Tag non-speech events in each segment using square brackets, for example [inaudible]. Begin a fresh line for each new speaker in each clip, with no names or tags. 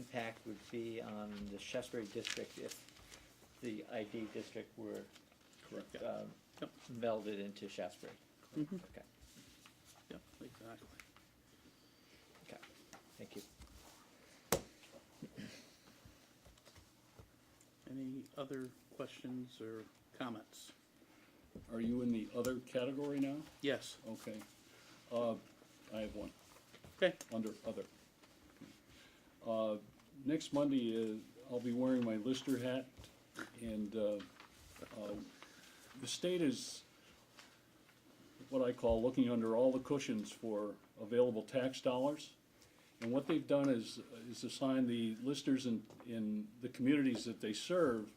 impact would be on the Shaftesbury district if the ID district were
Correct, yeah,
um,
Yep.
melded into Shaftesbury?
Mm-hmm.
Okay,
yeah, exactly.
okay, thank you.
Any other questions or comments?
Are you in the other category now?
Yes,
Okay. Uh, I have one,
okay,
under other. Uh, next Monday is, I'll be wearing my Lister hat, and, uh, uh, the state is what I call looking under all the cushions for available tax dollars. And what they've done is, is assign the listers in, in the communities that they serve,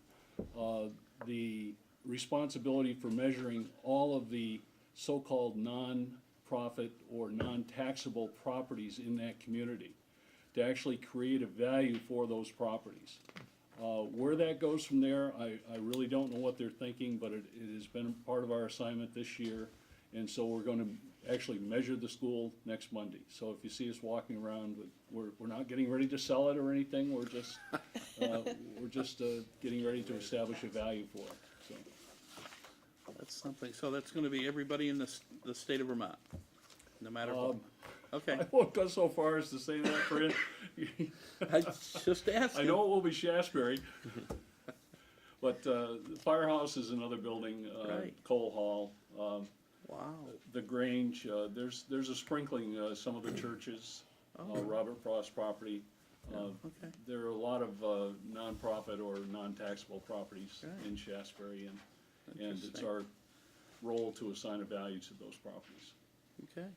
uh, the responsibility for measuring all of the so-called non-profit or non-taxable properties in that community, to actually create a value for those properties. Uh, where that goes from there, I, I really don't know what they're thinking, but it, it has been part of our assignment this year. And so we're gonna actually measure the school next Monday. So if you see us walking around, we- we're, we're not getting ready to sell it or anything, we're just, uh, we're just, uh, getting ready to establish a value for it, so.
that's something, so that's gonna be everybody in the, s- the state of Vermont, no matter what.
[laughs] Um,
Okay,
I won't go so far as to say that, Fran. [laughs]
I just
I
asking,
know it will be Shasberry.
[laughs]
But, uh, the Firehouse is another building, uh,
Right.
Cole Hall, um,
wow,
the Grange, uh, there's, there's a sprinkling, uh, some of the churches,
Oh.
uh, Robert Frost property. Uh,
okay,
there are a lot of, uh, nonprofit or non-taxable properties
Right.
in Shasberry and, and it's
Interesting.
our role to assign a value to those properties.
okay.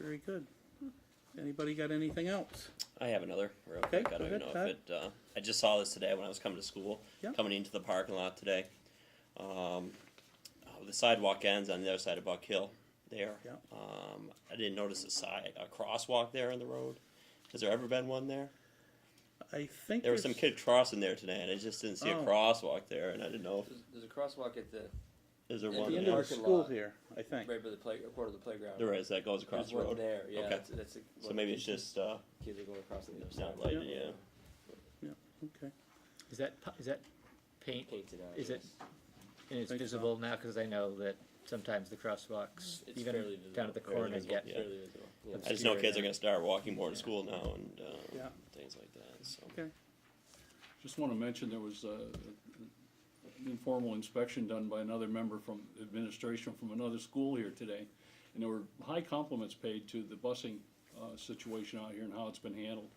Very good. Anybody got anything else?
I have another real
Okay,
quick. I
go
don't even know
ahead,
if it. Uh, I just saw this today when I was coming to school,
Yeah.
coming into the parking lot today. Um, oh, the sidewalk ends on the other side of Buck Hill there.
Yeah.
Um, I didn't notice a side a crosswalk there on the road. Has there ever been one there?
I think
There was some
there's-
kid crossing there today, and I just didn't see
Oh.
a crosswalk there, and I didn't know
There's, there's a crosswalk at the
if is there
At
one.
The
the
end of
there?
the
parking
school
lot.
here, I think.
right by the play, quarter of the playground.
there is that goes across
There's
the
one
road.
there. Yeah,
Okay.
that's, that's a,
So maybe it's just uh,
kids are going across the other side.
not lighted.
Yeah.
Yeah.
Okay,
Is that, pu- is that paint,
Painted out.
Is it-
yes.
and it's
Think so.
visible now, cause I know that sometimes the crosswalks,
It's
even
fairly
down
visible,
at the
fairly
corner,
visible,
get,
yeah.
fairly visible. Yeah.
I just know
obscure
kids are
now.
going to start walking more to school now and uh,
Yeah.
things like that. So.
okay,
Just want to mention, there was uh, an informal inspection done by another member from administration from another school here today. And there were high compliments paid to the busing uh, situation out here and how it's been handled.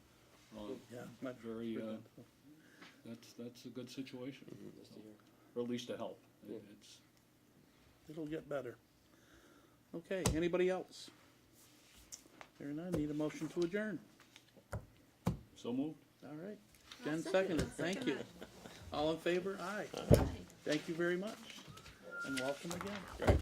Uh,
Oh, yeah. not
Very, uh,
frequent.
That's, that's a good situation,
Just to hear.
or at least a help. It-
Yeah.
It's,
It'll get better. Okay, anybody else? Here and I need a motion to adjourn.
so moved.
All right.
I'll
Jen seconded,
second it. I'll
thank
second
you.
that.
All in favor? Aye. Thank you very much, and welcome again.